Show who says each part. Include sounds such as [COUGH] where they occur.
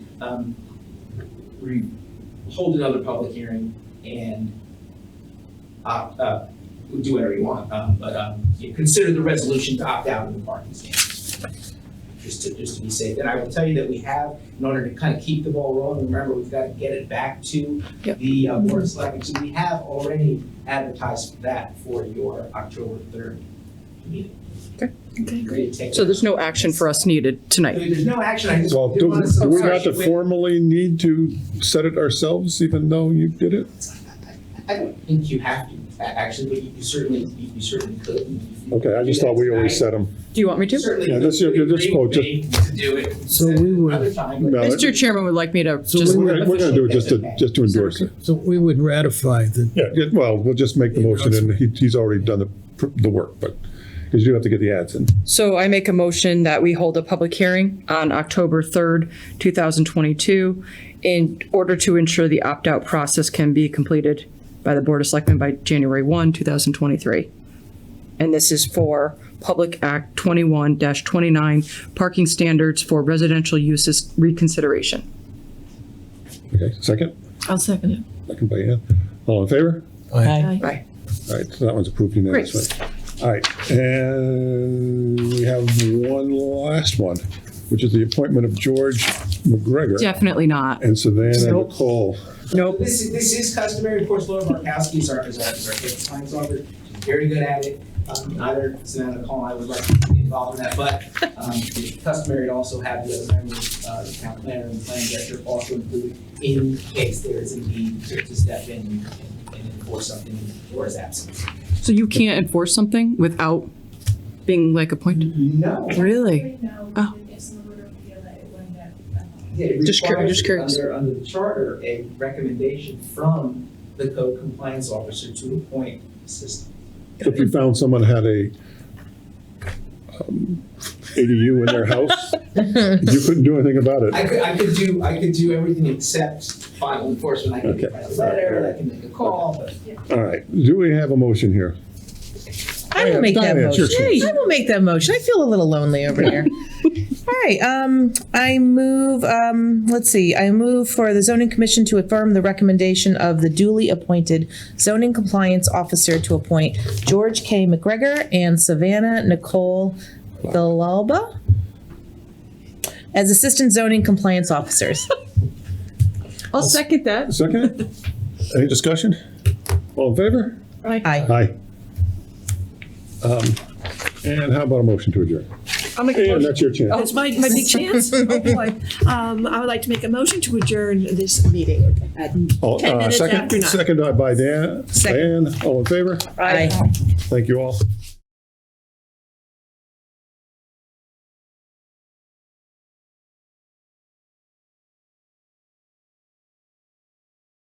Speaker 1: um, we hold another public hearing and opt, uh, we do whatever you want, um, but, um, you consider the resolution to opt out of the parking standards. Just to, just to be safe. And I will tell you that we have, in order to kind of keep the ball rolling, remember, we've got to get it back to
Speaker 2: Yep.
Speaker 1: the uh, board of selectmen. So we have already advertised that for your October third meeting.
Speaker 2: Okay.
Speaker 1: Great, take it.
Speaker 2: So there's no action for us needed tonight.
Speaker 1: There's no action, I just.
Speaker 3: Well,
Speaker 1: did
Speaker 3: do
Speaker 1: wanna-
Speaker 3: do we not
Speaker 1: Sorry,
Speaker 3: to
Speaker 1: wait.
Speaker 3: formally need to set it ourselves, even though you did it?
Speaker 1: I don't think you have to, a- actually, but you you certainly, you you certainly could. You- you-
Speaker 3: Okay, I just thought we always set them.
Speaker 2: Do you want me to?
Speaker 1: Certainly.
Speaker 3: Yeah,
Speaker 1: could.
Speaker 3: this- yeah,
Speaker 1: It'd be
Speaker 3: this
Speaker 1: great
Speaker 3: quote, just-
Speaker 1: thing To do it.
Speaker 4: So we would-
Speaker 1: Other time, but-
Speaker 3: No, it-
Speaker 2: Mr. Chairman would like me to
Speaker 4: So
Speaker 2: just,
Speaker 4: we-
Speaker 3: We're we're gonna do it just to, just to endorse it.
Speaker 4: So we would ratify the,
Speaker 3: Yeah, yeah, well, we'll just make the motion and he, he's already done the, pr- the work, but, because you have to get the ads in.
Speaker 2: so I make a motion that we hold a public hearing on October 3rd, 2022, in order to ensure the opt-out process can be completed by the Board of Selectmen by January 1, 2023. And this is for Public Act 21-29, parking standards for residential uses reconsideration.
Speaker 3: Okay, second,
Speaker 5: I'll second it.
Speaker 3: second by Ann. All in favor?
Speaker 2: Right.
Speaker 3: All right, so that one's approved unanimously. All right, and we have one last one, which is the appointment of George McGregor
Speaker 2: Definitely not.
Speaker 3: and Savannah McCall.
Speaker 2: Nope.
Speaker 1: This is, this is customary, of course, Laura Markowski is our, is our, is our head compliance officer, she's very good at it. Um, neither Savannah Nicole and I would like to be involved in that, but, um, it's customary to also have the other members, uh, the town planner and the planning director also included in case there is a need to to step in and- and enforce something in Laura's absence.
Speaker 2: So you can't enforce something without being like appointed?
Speaker 1: No,
Speaker 2: Really? Oh.
Speaker 1: Yeah, it
Speaker 2: Just cur-
Speaker 1: requires
Speaker 2: just curious.
Speaker 1: Under, under the charter, a recommendation from the code compliance officer to appoint assistant.
Speaker 3: So If we found someone had a um, ADU in
Speaker 6: [LAUGHS]
Speaker 3: their house, you couldn't do anything about
Speaker 1: I
Speaker 3: it.
Speaker 1: could, I could do, I could do everything except final enforcement, I can
Speaker 3: Okay.
Speaker 1: write a letter, I can make a call, but.
Speaker 3: All right, do we have a motion here?
Speaker 5: I will make that
Speaker 3: Diane, it's your
Speaker 5: motion. I will make that motion. I feel a little lonely over here. All right, um, I move, um, let's see, I move for the zoning commission to affirm the recommendation of the duly appointed zoning compliance officer to appoint George K. McGregor and Savannah Nicole Villalba as assistant zoning compliance officers.
Speaker 6: I'll second that.
Speaker 3: Second? Any discussion? All in favor?
Speaker 5: Aye.
Speaker 3: Aye. Um, And how about a motion to adjourn?
Speaker 6: I'll [LAUGHS] make a
Speaker 3: And
Speaker 6: motion.
Speaker 3: that's your chance.
Speaker 6: That's my, my big [LAUGHS] chance. Oh, boy. Um, I would like to make a motion to adjourn this meeting.
Speaker 3: All-
Speaker 6: Oh, Ten
Speaker 3: uh,
Speaker 6: minutes
Speaker 3: second-
Speaker 6: after nine.
Speaker 3: Second by Dan, Dan, all in favor?
Speaker 5: Aye.
Speaker 3: Thank you all.